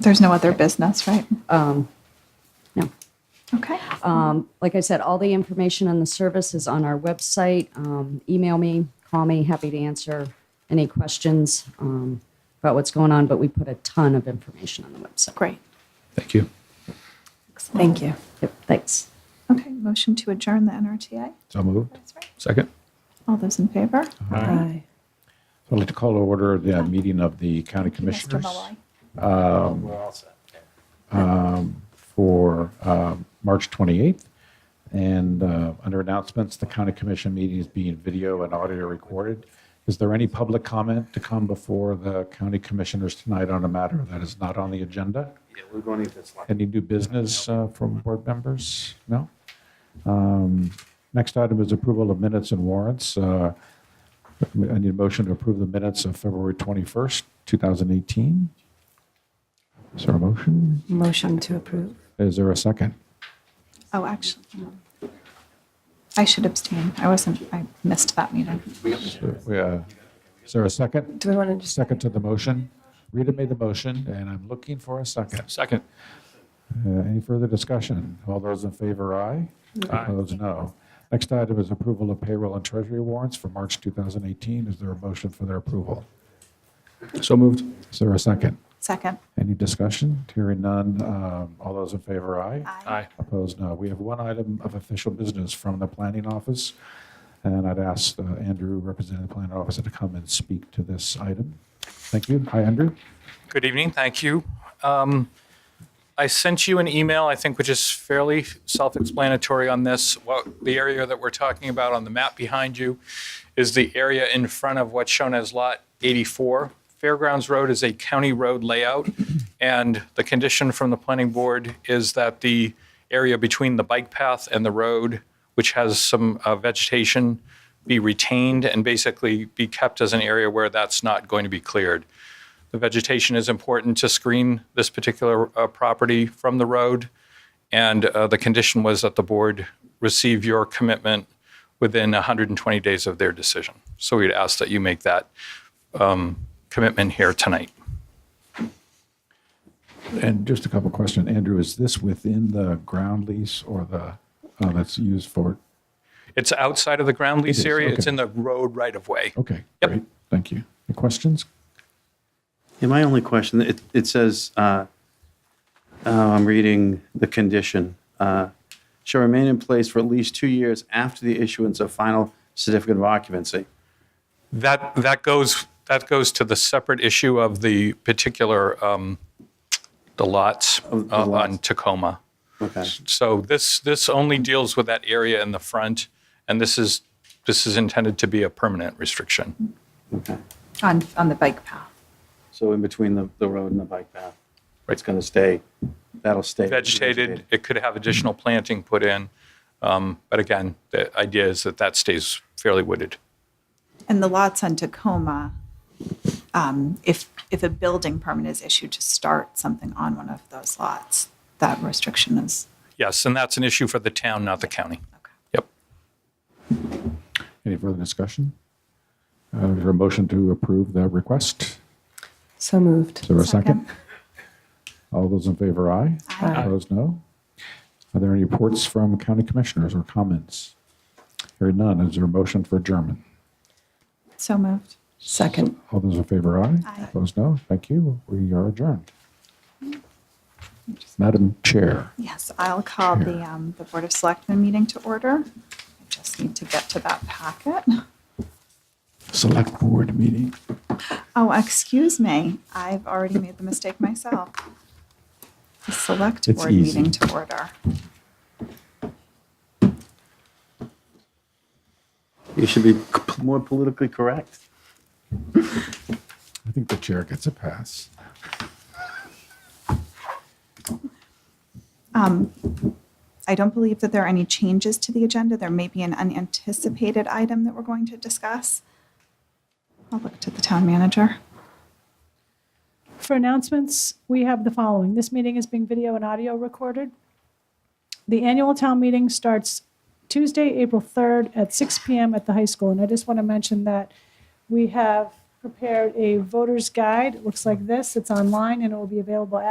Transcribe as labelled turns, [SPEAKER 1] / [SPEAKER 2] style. [SPEAKER 1] There's no other business, right?
[SPEAKER 2] Um, No.
[SPEAKER 1] Okay.
[SPEAKER 2] Um, Like I said, all the information on the service is on our website. Um, Email me, call me, happy to answer any questions um, about what's going on, but we put a ton of information on the website.
[SPEAKER 1] Great.
[SPEAKER 3] Thank you.
[SPEAKER 4] Thank you.
[SPEAKER 2] Yep, Thanks.
[SPEAKER 1] Okay, motion to adjourn the NRTA.
[SPEAKER 3] So moved.
[SPEAKER 1] That's right.
[SPEAKER 3] Second.
[SPEAKER 1] All those in favor?
[SPEAKER 4] Aye.
[SPEAKER 3] I'd like to call to order the meeting of the county
[SPEAKER 1] Mr.
[SPEAKER 3] commissioners
[SPEAKER 1] Malloy.
[SPEAKER 3] for uh, March 28th. And uh, under announcements, the county commission meeting is being video and audio recorded. Is there any public comment to come before the county commissioners tonight on a matter that is not on the agenda?
[SPEAKER 5] Yeah, we're going to this one.
[SPEAKER 3] Any new business uh, from board members? No? Um, Next item is approval of minutes and warrants. Uh, I need a motion to approve the minutes of February 21st, 2018. Is there a motion?
[SPEAKER 4] Motion to approve.
[SPEAKER 3] Is there a second?
[SPEAKER 1] Oh, actually, I should abstain. I wasn't, I missed that meeting.
[SPEAKER 3] Yeah. uh, Is there a second?
[SPEAKER 4] Do we want to just?
[SPEAKER 3] Second to the motion? Rita made the motion, and I'm looking for a second.
[SPEAKER 6] Second.
[SPEAKER 3] Uh, Any further discussion? All those in favor, aye.
[SPEAKER 6] Aye.
[SPEAKER 3] Opposed, no. Next item is approval of payroll and treasury warrants for March 2018. Is there a motion for their approval?
[SPEAKER 6] So moved.
[SPEAKER 3] Is there a second?
[SPEAKER 1] Second.
[SPEAKER 3] Any discussion? Hearing none. Um, All those in favor, aye.
[SPEAKER 6] Aye.
[SPEAKER 3] Opposed, no. We have one item of official business from the planning office, and I'd ask uh, Andrew, representing the planning office, to come and speak to this item. Thank you. Hi, Andrew.
[SPEAKER 6] Good evening. Thank you. Um, I sent you an email, I think, which is fairly self-explanatory on this. What the area that we're talking about on the map behind you is the area in front of what's shown as Lot 84. Fairgrounds Road is a county road layout, and the condition from the planning board is that the area between the bike path and the road, which has some uh, vegetation, be retained and basically be kept as an area where that's not going to be cleared. The vegetation is important to screen this particular uh, property from the road, and uh, the condition was that the board receive your commitment within 120 days of their decision. So we'd ask that you make that um, commitment here tonight.
[SPEAKER 3] And just a couple questions. Andrew, is this within the ground lease or the, uh, that's used for?
[SPEAKER 6] It's outside of the ground lease
[SPEAKER 3] is,
[SPEAKER 6] area. It's
[SPEAKER 3] okay.
[SPEAKER 6] in the road right of way.
[SPEAKER 3] Okay,
[SPEAKER 6] Yep.
[SPEAKER 3] great. Thank you. Any questions?
[SPEAKER 5] Yeah, my only question, it, it says, uh, uh, I'm reading the condition, uh, shall remain in place for at least two years after the issuance of final certificate of occupancy.
[SPEAKER 6] That, that goes, that goes to the separate issue of the particular, um, the lots
[SPEAKER 5] the
[SPEAKER 6] uh, on
[SPEAKER 5] lots.
[SPEAKER 6] Tacoma.
[SPEAKER 5] Okay.
[SPEAKER 6] So this, this only deals with that area in the front, and this is, this is intended to be a permanent restriction.
[SPEAKER 5] Okay.
[SPEAKER 1] On, on the bike path.
[SPEAKER 5] So in between the, the road and the bike path, it's
[SPEAKER 6] Right.
[SPEAKER 5] going to stay, that'll stay.
[SPEAKER 6] Vegetated, it could have additional planting put in, um, but again, the idea is that that stays fairly wooded.
[SPEAKER 1] And the lots on Tacoma, um, if, if a building permit is issued to start something on one of those lots, that restriction is,
[SPEAKER 6] Yes, and that's an issue for the town, not the county. Yep.
[SPEAKER 3] Any further discussion? Uh, Is there a motion to approve the request?
[SPEAKER 4] So moved.
[SPEAKER 3] Is there a second? All those in favor, aye.
[SPEAKER 1] Aye.
[SPEAKER 3] Opposed, no. Are there any reports from county commissioners or comments? Hearing none, is there a motion for adjournment?
[SPEAKER 1] so moved.
[SPEAKER 4] Second.
[SPEAKER 3] All those in favor, aye.
[SPEAKER 1] Aye.
[SPEAKER 3] Opposed, no. Thank you. We are adjourned. Madam Chair.
[SPEAKER 1] Yes, I'll call the, um, the Board of Selectmen meeting to order. I just need to get to that packet.
[SPEAKER 3] Select Board meeting.
[SPEAKER 1] Oh, excuse me, I've already made the mistake myself. The Select
[SPEAKER 3] It's
[SPEAKER 1] Board
[SPEAKER 3] easy.
[SPEAKER 1] meeting to order.
[SPEAKER 5] You should be c- more politically correct.
[SPEAKER 3] I think the chair gets a pass.
[SPEAKER 1] I don't believe that there are any changes to the agenda. There may be an unanticipated item that we're going to discuss. I'll look to the town manager.
[SPEAKER 7] For announcements, we have the following. This meeting is being video and audio recorded. The annual town meeting starts Tuesday, April 3rd at 6 PM at the high school. And I just want to mention that we have prepared a voter's guide. It looks like this. It's online and it will be available